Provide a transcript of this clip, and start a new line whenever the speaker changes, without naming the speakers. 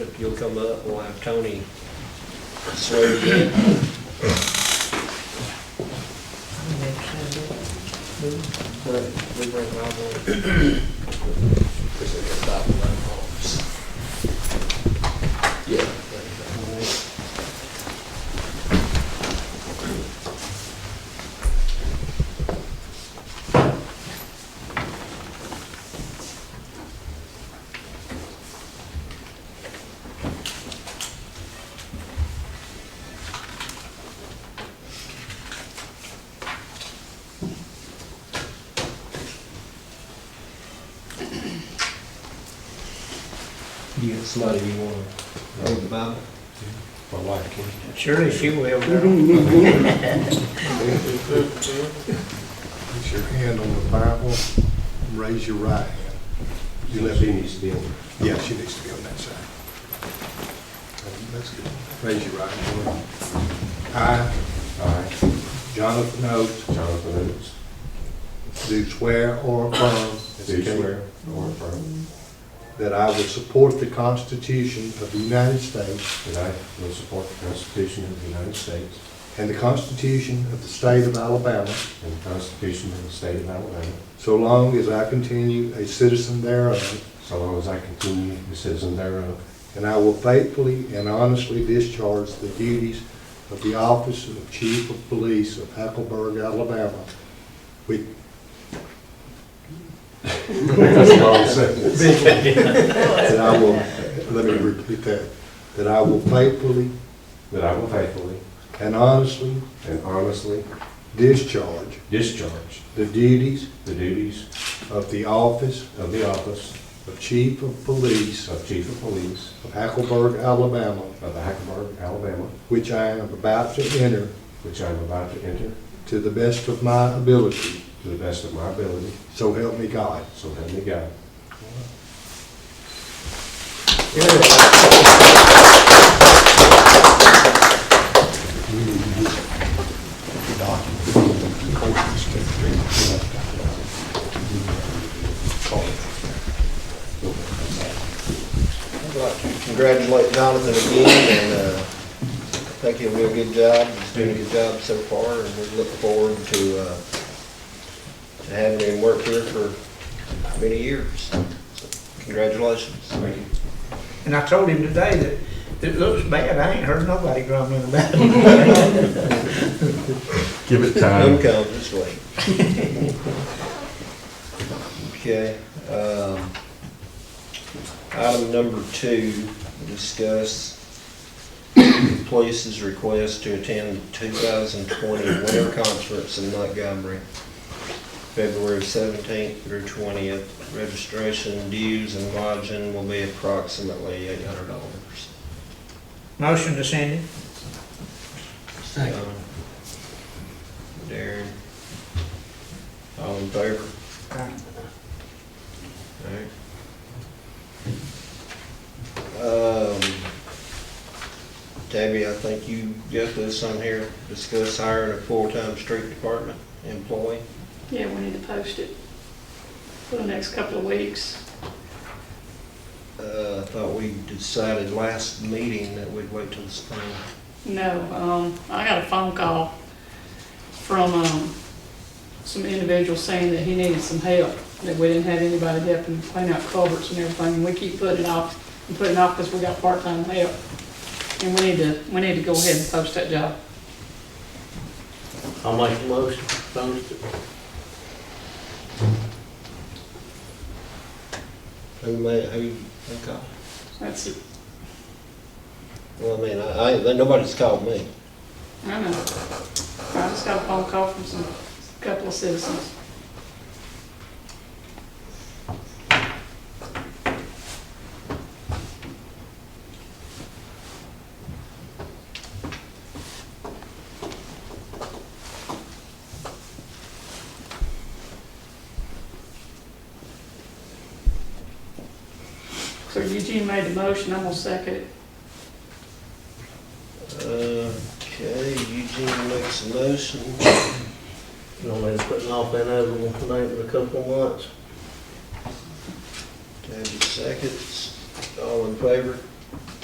you'll come up, we'll have Tony swear you in.
Yeah.
You got somebody you wanna hold the Bible?
My wife can.
Surely she will now.
Put your hand on the Bible, raise your right hand. You left hand.
needs to be on.
Yeah, she needs to be on that side. Um, That's good. Raise your right hand. I,
I,
Jonathan Oates,
Jonathan Oates,
do swear or affirm.
do swear or affirm
That I will support the Constitution of the United States
that I will support the Constitution of the United States
and the Constitution of the State of Alabama,
and the Constitution of the State of Alabama,
so long as I continue a citizen thereof,
so long as I continue a citizen thereof,
And I will faithfully and honestly discharge the duties of the office of Chief of Police of Hackleburg, Alabama, with that I will, let me repeat that, that I will faithfully
that I will faithfully
and honestly
and honestly
discharge
discharge
the duties
the duties
of the office
of the office
of Chief of Police
of Chief of Police
of Hackleburg, Alabama,
of the Hackleburg, Alabama,
which I am about to enter
which I am about to enter
to the best of my ability,
to the best of my ability,
so help me God.
so help me God.
I'd like to congratulate Donovan again, and uh, I think he'll do a good job, he's doing a good job so far, and we look forward to, uh, to having him work here for many years. Congratulations.
Thank you.
And I told him today that it looks bad, I ain't heard nobody grumbling about it.
Give it
Home comes this way. Okay, um, item number two, discuss the police's request to attend the 2020 Winter Conference in Montgomery, February 17th through 20th. Registration dues and lodging will be approximately $800.
Motion to send it.
Second. Darren? All in favor? Um, Tabby, I think you got this on here, discuss hiring a full-time street department employee.
Yeah, we need to post it for the next couple of weeks.
Uh, I thought we decided last meeting that we'd wait till the spring.
No, um, I got a phone call from, um, some individual saying that he needed some help, that we didn't have anybody helping clean out culverts and everything, and we keep putting it off, and putting it off because we got part-time help. And we need to, we need to go ahead and post that job.
I'll make the motion, post it.
Who made, who, who called?
That's it.
Well, I mean, I, I, nobody's called me.
I know. I just got a phone call from some, couple of citizens. So Eugene made the motion, I'm gonna second it.
Okay, Eugene makes a motion.
You know, they're putting off that other one tonight for a couple of months.
Tabby seconds. All in favor?